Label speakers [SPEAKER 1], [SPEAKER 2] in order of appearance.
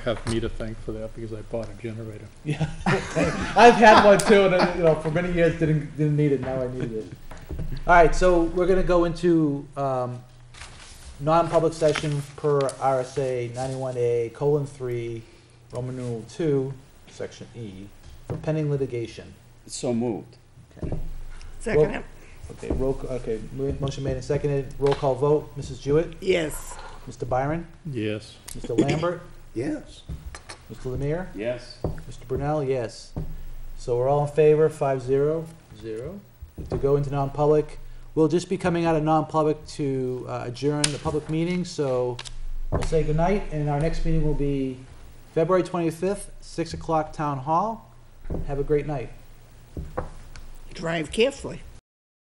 [SPEAKER 1] have me to thank for that because I bought a generator.
[SPEAKER 2] Yeah, I've had one too, and I, you know, for many years didn't didn't need it. Now I need it. All right, so we're gonna go into um, non-public session per RSA ninety-one A colon three, Roman numeral two, section E, for pending litigation.
[SPEAKER 3] So moved.
[SPEAKER 2] Well-
[SPEAKER 4] Second, it.
[SPEAKER 2] Okay, roll. c- Okay, mo- motion made and seconded. Roll call vote. Mrs. Jewett,
[SPEAKER 4] yes.
[SPEAKER 2] Mr. Byron,
[SPEAKER 1] Yes.
[SPEAKER 2] Mr. Lambert,
[SPEAKER 3] Yes.
[SPEAKER 2] Mr. Lemire.
[SPEAKER 3] Yes.
[SPEAKER 2] Mr. Brunel, yes. So we're all in favor, five zero, zero, to go into non-public. We'll just be coming out of non-public to uh, adjourn the public meeting, so we'll say goodnight, and our next meeting will be February twenty-fifth, six o'clock, Town Hall. Have a great night.
[SPEAKER 4] Drive carefully.